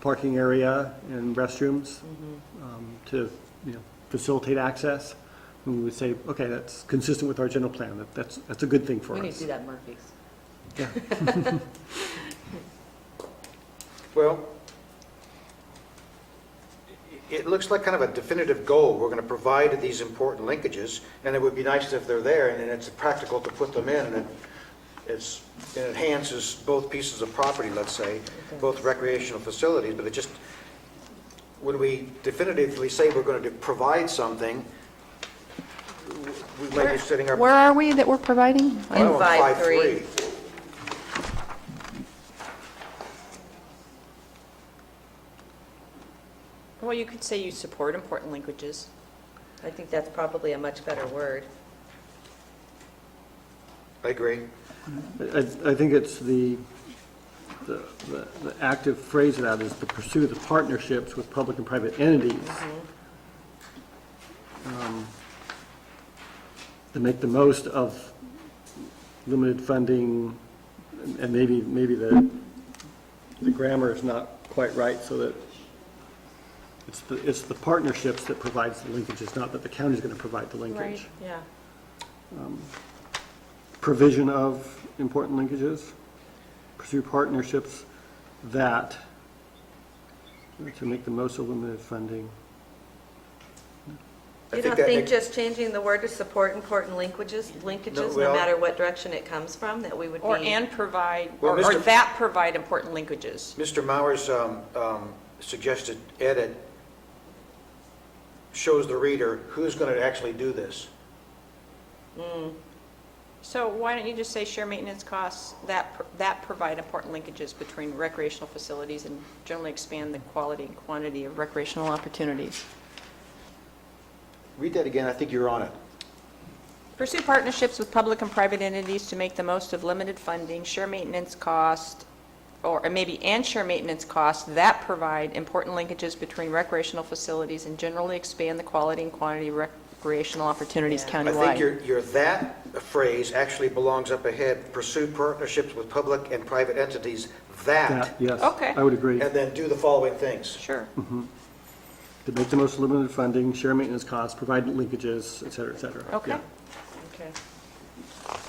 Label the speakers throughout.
Speaker 1: parking area and restrooms
Speaker 2: Mm-hmm.
Speaker 1: um, to, you know, facilitate access. And we would say, okay, that's consistent with our general plan, that, that's, that's a good thing for
Speaker 2: We need to
Speaker 1: us.
Speaker 2: do that Murphy's.
Speaker 3: Well, i- it looks like kind of a definitive goal. We're going to provide these important linkages, and it would be nice if they're there, and it's practical to put them in, and it's, it enhances both pieces of property, let's say, both recreational facilities, but it just, when we definitively say we're going to provide something, we might be setting our.
Speaker 4: Where are we that we're providing?
Speaker 3: Well,
Speaker 2: In five, three. Well, you could say you support important languages. I think that's probably a much better word.
Speaker 3: I agree.
Speaker 1: I, I think it's the, the, the the active phrase of that is to pursue the partnerships with public and private entities. um, To make the most of limited funding, and- and maybe, maybe the, the grammar is not quite right, so that it's the, it's the partnerships that provides the linkage, it's not that the county's gonna provide the linkage.
Speaker 2: Yeah.
Speaker 1: provision of important linkages, pursue partnerships that, to make the most of limited funding.
Speaker 3: I
Speaker 2: You
Speaker 3: think
Speaker 2: don't
Speaker 3: that
Speaker 2: think
Speaker 3: makes-
Speaker 2: just changing the word to support important linkages, linkages, no
Speaker 3: well-
Speaker 2: matter what direction it comes from, that we would be?
Speaker 5: Or and provide,
Speaker 3: Well,
Speaker 5: or or
Speaker 3: Mr.
Speaker 5: that provide important linkages.
Speaker 3: Mr. Mauer's um, um, suggested edit shows the reader who's going to actually do this.
Speaker 5: So why don't you just say share maintenance costs that, pr- that provide important linkages between recreational facilities and generally expand the quality and quantity of recreational opportunities?
Speaker 3: Read that again, I think you're on it.
Speaker 5: Pursue partnerships with public and private entities to make the most of limited funding, share maintenance costs, or and maybe and share maintenance costs that provide important linkages between recreational facilities and generally expand the quality and quantity of recreational opportunities
Speaker 2: Yeah.
Speaker 3: I
Speaker 5: countywide.
Speaker 3: think your, your that phrase actually belongs up ahead, pursue partnerships with public and private entities
Speaker 1: That,
Speaker 3: that,
Speaker 1: yes.
Speaker 5: Okay.
Speaker 1: I would agree.
Speaker 3: and then do the following things.
Speaker 5: Sure.
Speaker 1: To make the most of limited funding, share maintenance costs, provide linkages, et cetera, et cetera.
Speaker 5: Okay.
Speaker 1: Yeah.
Speaker 2: Okay.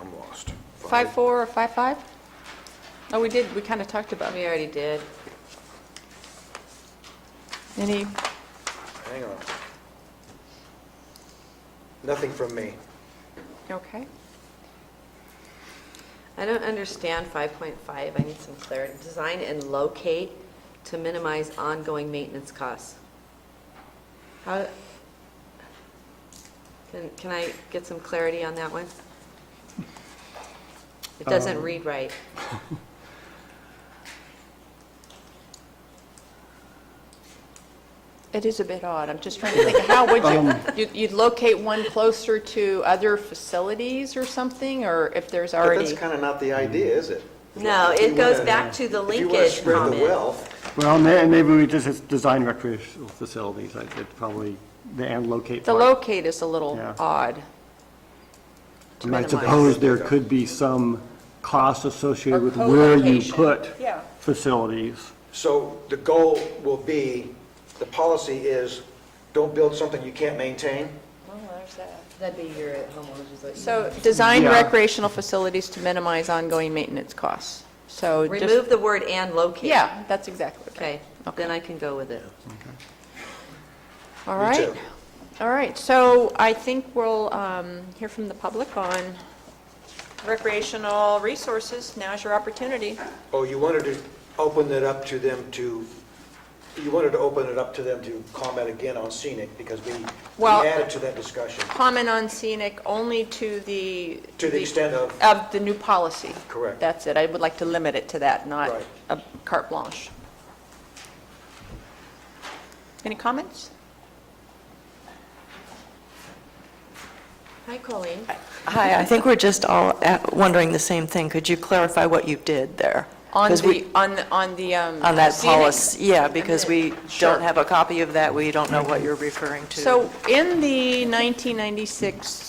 Speaker 3: I'm lost.
Speaker 5: Five, four, or five, five? Oh, we did, we kind of talked about it.
Speaker 2: We already did.
Speaker 5: Any,
Speaker 3: Hang on. Nothing from me.
Speaker 5: okay.
Speaker 2: I don't understand 5.5, I need some clarity. Design and locate to minimize ongoing maintenance costs. How, can, can I get some clarity on that one? It doesn't read right.
Speaker 5: It is a bit odd. I'm just trying to think, how would you,
Speaker 1: Um,
Speaker 5: you'd- you'd locate one closer to other facilities or something, or if there's
Speaker 3: But that's
Speaker 5: already?
Speaker 3: kind of not the idea, is it?
Speaker 2: No,
Speaker 3: If you
Speaker 2: it goes
Speaker 3: wanna-
Speaker 2: back to the
Speaker 3: If you want to
Speaker 2: linkage
Speaker 3: spread the
Speaker 2: comment.
Speaker 3: wealth,
Speaker 1: Well, may- maybe we just, it's design recreational facilities, I could probably, the and locate
Speaker 5: The
Speaker 1: part.
Speaker 5: locate is a little
Speaker 1: Yeah.
Speaker 5: odd.
Speaker 1: I mean, I
Speaker 5: minimize.
Speaker 1: suppose there could be some cost associated with where you
Speaker 5: co-location.
Speaker 1: put
Speaker 5: Yeah.
Speaker 1: facilities.
Speaker 3: So the goal will be, the policy is, don't build something you can't maintain?
Speaker 5: Oh,
Speaker 2: That'd be your homeowners.
Speaker 5: So, design
Speaker 1: Yeah.
Speaker 5: recreational facilities to minimize ongoing maintenance costs. So just-
Speaker 2: Remove the word and locate.
Speaker 5: Yeah, that's exactly right.
Speaker 2: Okay, then I can go with it.
Speaker 5: All
Speaker 3: Me
Speaker 5: right.
Speaker 3: too.
Speaker 5: All right, so I think we'll um, hear from the public on recreational resources. Now's your opportunity.
Speaker 3: Oh, you wanted to open it up to them to, you wanted to open it up to them to comment again on scenic, because we we
Speaker 5: Well-
Speaker 3: added to that discussion,
Speaker 5: Comment on scenic only to the...
Speaker 3: to the extent of,
Speaker 5: Of the new policy.
Speaker 3: Correct.
Speaker 5: That's it. I would like to limit it to that, not
Speaker 3: Right.
Speaker 5: a carte blanche. Any comments?
Speaker 2: Hi, Colleen.
Speaker 6: Hi, I think we're just all at- wondering the same thing. Could you clarify what you did there?
Speaker 5: On
Speaker 6: 'Cause we-
Speaker 5: the, on the, on the... um,
Speaker 6: On that
Speaker 5: scenic?
Speaker 6: policy, yeah, because we
Speaker 5: Sure.
Speaker 6: don't have a copy of that, we don't know what you're referring to.
Speaker 5: So in the 1996